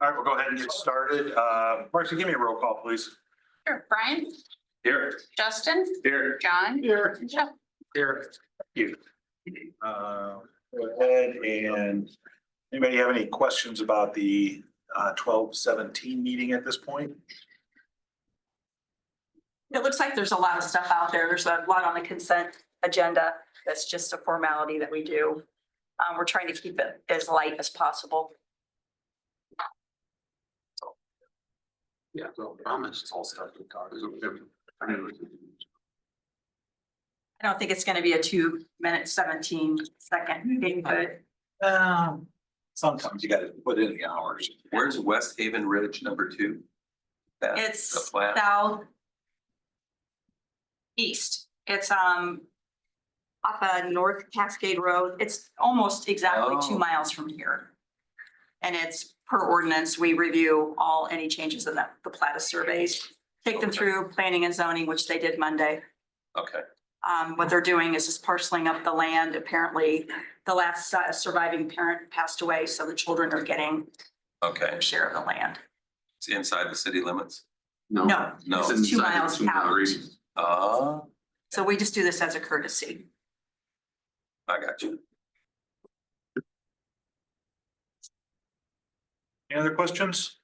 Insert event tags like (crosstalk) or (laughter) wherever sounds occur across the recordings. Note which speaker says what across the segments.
Speaker 1: All right, we'll go ahead and get started. Uh, Marcy, give me a roll call, please.
Speaker 2: Sure, Brian,
Speaker 1: Here.
Speaker 2: Justin,
Speaker 1: Here.
Speaker 2: John,
Speaker 1: Here.
Speaker 2: and Jeff.
Speaker 1: Here. You. Uh, Go ahead and anybody have any questions about the uh, twelve seventeen meeting at this point?
Speaker 3: It looks like there's a lot of stuff out there. There's a lot on the consent agenda. That's just a formality that we do. Um, we're trying to keep it as light as possible.
Speaker 4: Yeah, well, promised. All stuff with cars. I mean,
Speaker 3: I don't think it's gonna be a two minute seventeen second meeting, but
Speaker 1: Um. Sometimes you gotta put in the hours.
Speaker 4: Where's West Haven Ridge number two? That- the
Speaker 3: it's
Speaker 4: flat.
Speaker 3: south. East, it's um. Off of North Cascade Road, it's almost exactly two
Speaker 4: Oh.
Speaker 3: miles from here. And it's per ordinance, we review all, any changes in the, the plat of surveys, take them
Speaker 4: Okay.
Speaker 3: through planning and zoning, which they did Monday.
Speaker 4: Okay,
Speaker 3: Um, what they're doing is just parceling up the land. Apparently, the last uh, surviving parent passed away, so the children are getting
Speaker 4: okay.
Speaker 3: their share of the land.
Speaker 4: It's inside the city limits?
Speaker 3: No,
Speaker 4: No.
Speaker 3: This is two miles out.
Speaker 4: Ah,
Speaker 3: So we just do this as a courtesy.
Speaker 4: I got you.
Speaker 1: Any other questions?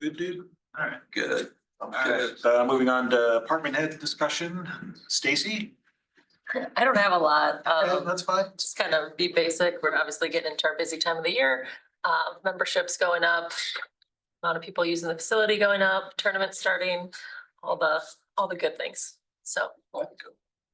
Speaker 1: Good dude. All right.
Speaker 4: Good.
Speaker 1: All right, uh, moving on to apartment head discussion. Stacy?
Speaker 5: I don't have a lot.
Speaker 1: Yeah,
Speaker 5: Um,
Speaker 1: That's fine.
Speaker 5: just kind of be basic. We're obviously getting into our busy time of the year. Uh, memberships going up. Amount of people using the facility going up, tournaments starting, all the, all the good things. So.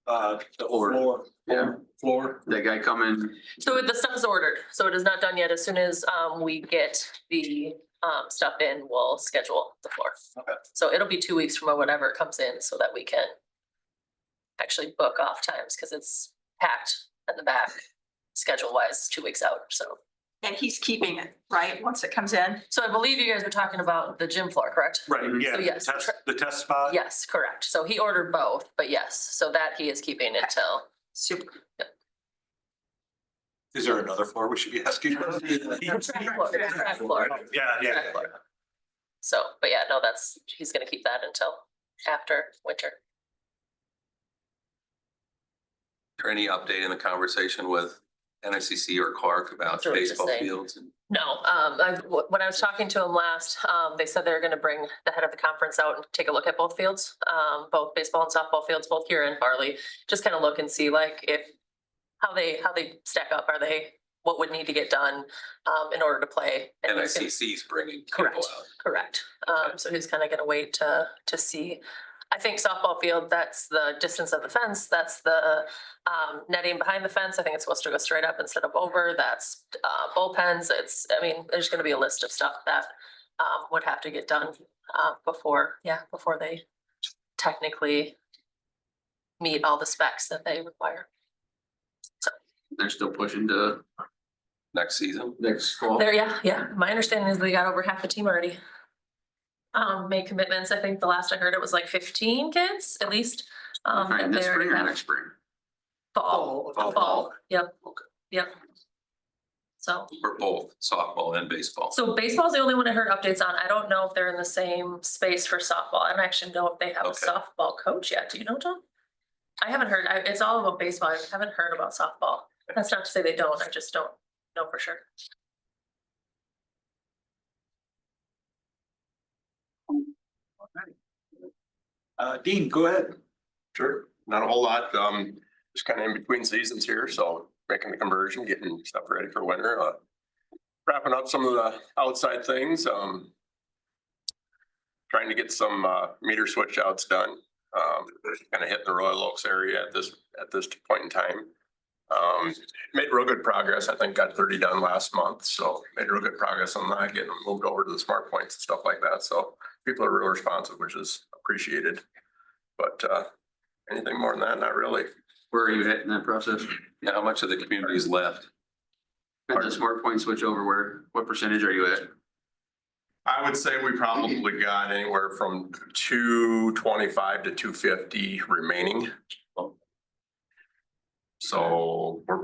Speaker 1: Uh, the
Speaker 6: Or-
Speaker 1: floor.
Speaker 6: Yeah.
Speaker 1: Floor.
Speaker 6: That guy coming,
Speaker 5: So the stuff is ordered, so it is not done yet. As soon as, um, we get the, um, stuff in, we'll schedule the floor.
Speaker 1: Okay.
Speaker 5: So it'll be two weeks from whenever it comes in so that we can actually book off times because it's packed at the back, schedule wise, two weeks out, so.
Speaker 3: And he's keeping it, right? Once it comes in.
Speaker 5: So I believe you guys were talking about the gym floor, correct?
Speaker 1: Right, yeah,
Speaker 5: So
Speaker 1: the
Speaker 5: yes,
Speaker 1: test,
Speaker 5: tra-
Speaker 1: the test spot.
Speaker 5: Yes, correct. So he ordered both, but yes, so that he is keeping until,
Speaker 3: Super.
Speaker 1: Is there another floor we should be asking? (laughs) about?
Speaker 5: floor, track floor.
Speaker 1: Yeah, yeah.
Speaker 5: Track floor. so, but yeah, no, that's, he's gonna keep that until after winter.
Speaker 4: Or any update in the conversation with NICC or Clark about
Speaker 5: That's what I was just
Speaker 4: baseball
Speaker 5: saying.
Speaker 4: fields? and-
Speaker 5: No, um, I, wh- when I was talking to him last, um, they said they were gonna bring the head of the conference out and take a look at both fields. Um, both baseball and softball fields, both here in Farley, just kind of look and see like if, how they, how they stack up, are they, what would need to get done, um, in order to play? And he's gonna-
Speaker 4: NICC's bringing people
Speaker 5: Correct.
Speaker 4: out.
Speaker 5: Correct. Um, so he's kind of going to wait to, to see. I think softball field, that's the distance of the fence, that's the, um, netting behind the fence. I think it's supposed to go straight up instead of over. That's, uh, bullpens. It's, I mean, there's going to be a list of stuff that, um, would have to get done, uh, before, yeah, before they technically meet all the specs that they require.
Speaker 6: they're still pushing to
Speaker 4: Next season,
Speaker 6: next fall.
Speaker 5: There, yeah, yeah. My understanding is they got over half the team already. Um, made commitments. I think the last I heard it was like fifteen kids at least. Um,
Speaker 6: Trying
Speaker 5: that
Speaker 6: this
Speaker 5: they
Speaker 6: spring
Speaker 5: already
Speaker 6: or
Speaker 5: have
Speaker 6: next spring?
Speaker 5: fall,
Speaker 6: Fall.
Speaker 5: fall, yep, yep. So,
Speaker 4: for both softball and baseball.
Speaker 5: so baseball's the only one I heard updates on. I don't know if they're in the same space for softball. I don't actually know if they have a
Speaker 4: Okay.
Speaker 5: softball coach yet. Do you know, John? I haven't heard, I, it's all about baseball. I haven't heard about softball. That's not to say they don't. I just don't know for sure.
Speaker 1: Uh, Dean, go ahead.
Speaker 7: Sure, not a whole lot, um, just kind of in between seasons here, so making the conversion, getting stuff ready for winter, uh. Wrapping up some of the outside things, um. Trying to get some, uh, meter switch outs done, um, kind of hitting the Royal Oaks area at this, at this point in time. Um, made real good progress, I think got thirty done last month, so made real good progress on that, getting them moved over to the smart points and stuff like that, so. People are real responsive, which is appreciated, but, uh, Anything more than that? Not really.
Speaker 6: Where are you at in that process?
Speaker 4: Now, how much of the community is left?
Speaker 6: At the smart point switch over where, what percentage are you at?
Speaker 7: I would say we probably got anywhere from two twenty-five to two fifty remaining. So we're